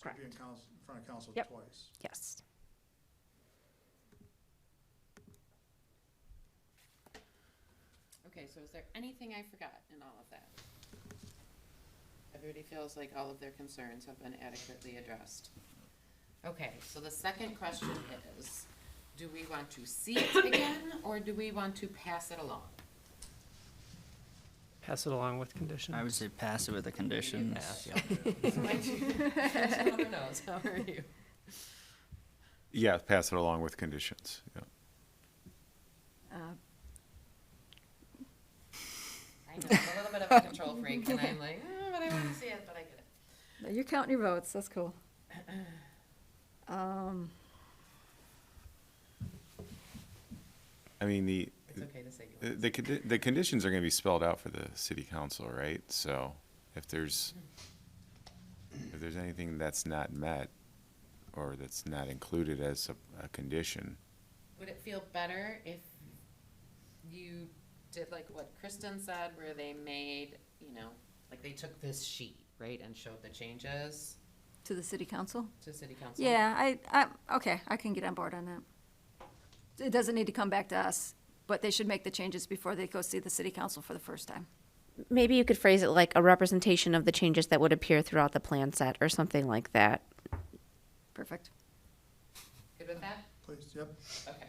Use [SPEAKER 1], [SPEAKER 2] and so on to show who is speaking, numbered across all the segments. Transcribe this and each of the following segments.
[SPEAKER 1] Correct.
[SPEAKER 2] Be in council, in front of council
[SPEAKER 1] Yep.
[SPEAKER 2] twice.
[SPEAKER 1] Yes.
[SPEAKER 3] Okay, so is there anything I forgot in all of that? Everybody feels like all of their concerns have been adequately addressed. Okay, so the second question is, do we want to see it again, or do we want to pass it along?
[SPEAKER 4] Pass it along with condition.
[SPEAKER 5] I would say pass it with the conditions.
[SPEAKER 3] So I do- Councilmember Knowles, how are you?
[SPEAKER 6] Yeah, pass it along with conditions, yeah.
[SPEAKER 3] I know, I'm a little bit of a control freak, and I'm like, "Ah, but I want to see it, but I get it.
[SPEAKER 7] No, You're counting your votes, that's cool. Um,
[SPEAKER 6] I mean, the,
[SPEAKER 3] It's okay to say you
[SPEAKER 6] the, the condi- the conditions are gonna be spelled out for the city council, right? So if there's, if there's anything that's not met or that's not included as a, a condition,
[SPEAKER 3] Would it feel better if you did like what Kristen said, where they made, you know, like they took this sheet, right, and showed the changes
[SPEAKER 7] To the city council?
[SPEAKER 3] to city council?
[SPEAKER 7] Yeah, I, I, okay, I can get on board on that. It doesn't need to come back to us, but they should make the changes before they go see the city council for the first time.
[SPEAKER 8] Maybe you could phrase it like a representation of the changes that would appear throughout the plan set or something like that.
[SPEAKER 7] Perfect.
[SPEAKER 3] Good with that?
[SPEAKER 2] Please, yep.
[SPEAKER 3] Okay.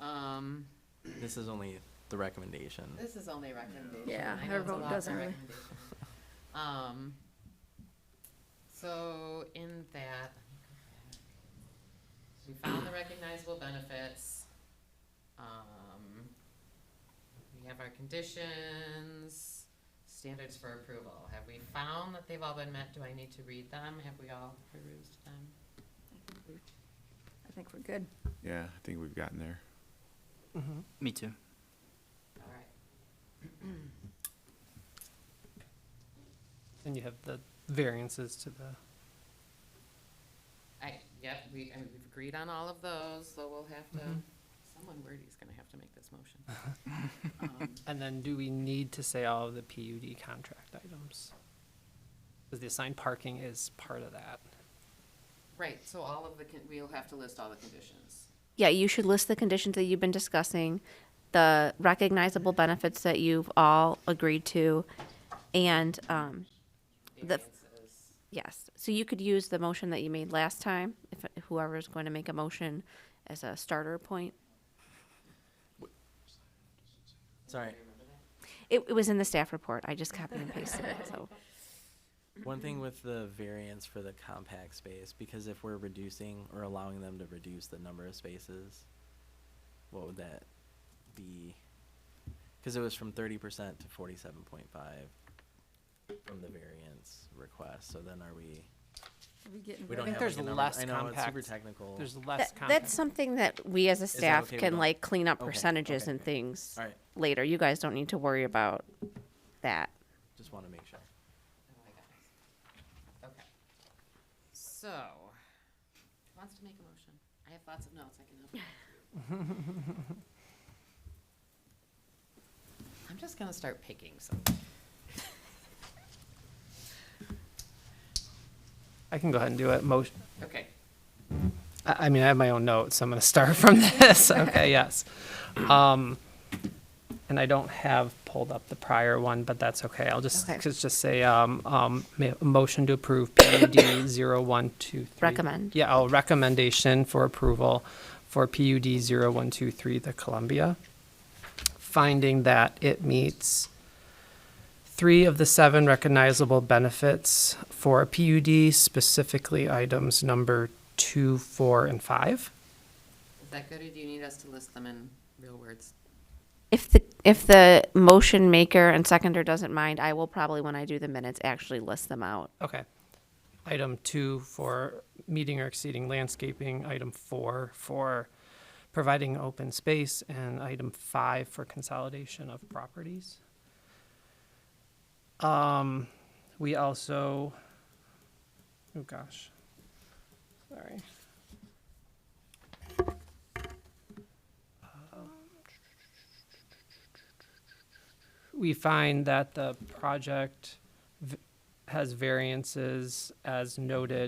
[SPEAKER 3] Um,
[SPEAKER 9] This is only the recommendation.
[SPEAKER 3] this is only a recommendation.
[SPEAKER 7] Yeah,
[SPEAKER 3] I know
[SPEAKER 7] her
[SPEAKER 3] it's a
[SPEAKER 7] vote
[SPEAKER 3] lot for
[SPEAKER 7] doesn't really-
[SPEAKER 3] recommendation. Um, so in that, we found the recognizable benefits. Um, we have our conditions, standards for approval. Have we found that they've all been met? Do I need to read them? Have we all perused them?
[SPEAKER 7] I think we're good.
[SPEAKER 6] yeah, I think we've gotten there.
[SPEAKER 5] Me too.
[SPEAKER 3] All right.
[SPEAKER 4] And you have the variances to the,
[SPEAKER 3] I, yep, we, I mean, we've agreed on all of those, so we'll have to, someone wordy's gonna have to make this motion. Um,
[SPEAKER 4] and then do we need to say all of the PUD contract items? Because the assigned parking is part of that.
[SPEAKER 3] Right, so all of the, con- we'll have to list all the conditions.
[SPEAKER 8] Yeah, you should list the conditions that you've been discussing, the recognizable benefits that you've all agreed to, and, um, The-
[SPEAKER 3] variances.
[SPEAKER 8] yes. So you could use the motion that you made last time, if whoever's going to make a motion as a starter point.
[SPEAKER 9] Sorry.
[SPEAKER 8] It, it was in the staff report. I just copied and pasted it, so.
[SPEAKER 9] One thing with the variance for the compact space, because if we're reducing or allowing them to reduce the number of spaces, what would that be? Because it was from thirty percent to forty-seven point five from the variance request, so then are we,
[SPEAKER 7] Are we getting rid
[SPEAKER 9] we don't
[SPEAKER 7] of-
[SPEAKER 4] think
[SPEAKER 9] have like
[SPEAKER 4] there's
[SPEAKER 9] a number-
[SPEAKER 4] less
[SPEAKER 9] I know, it's super
[SPEAKER 4] compact-
[SPEAKER 9] technical.
[SPEAKER 4] There's less
[SPEAKER 8] That,
[SPEAKER 4] compact.
[SPEAKER 8] that's something that we as a
[SPEAKER 9] that
[SPEAKER 8] staff
[SPEAKER 9] okay with
[SPEAKER 8] can
[SPEAKER 9] all-
[SPEAKER 8] like clean up
[SPEAKER 9] Okay,
[SPEAKER 8] percentages
[SPEAKER 9] okay.
[SPEAKER 8] and things
[SPEAKER 9] All right,
[SPEAKER 8] later. You guys don't need to worry about that.
[SPEAKER 9] just want to make sure.
[SPEAKER 3] Oh my goodness. Okay. So, who wants to make a motion? I have lots of notes, I can help you. I'm just gonna start picking some.
[SPEAKER 4] I can go ahead and do it. Motion,
[SPEAKER 3] Okay,
[SPEAKER 4] I, I mean, I have my own notes. so I'm going to start from this. Okay, yes. Um, and I don't have pulled up the prior one, but that's okay. I'll just,
[SPEAKER 8] Okay.
[SPEAKER 4] just just say, um, um, ma- motion to approve PUD zero one two three.
[SPEAKER 8] Recommend.
[SPEAKER 4] Yeah, I'll recommendation for approval for PUD zero one two three, the Columbia. Finding that it meets three of the seven recognizable benefits for a PUD, specifically items number two, four, and five.
[SPEAKER 3] is that good, or do you need us to list them in real words?
[SPEAKER 8] If the, if the motion maker and seconder doesn't mind, I will probably, when I do the minutes, actually list them out.
[SPEAKER 4] Okay. Item two for meeting or exceeding landscaping, item four for providing open space, and item five for consolidation of properties. Um, we also, oh gosh, sorry. Um, We find that the project v- has variances as noted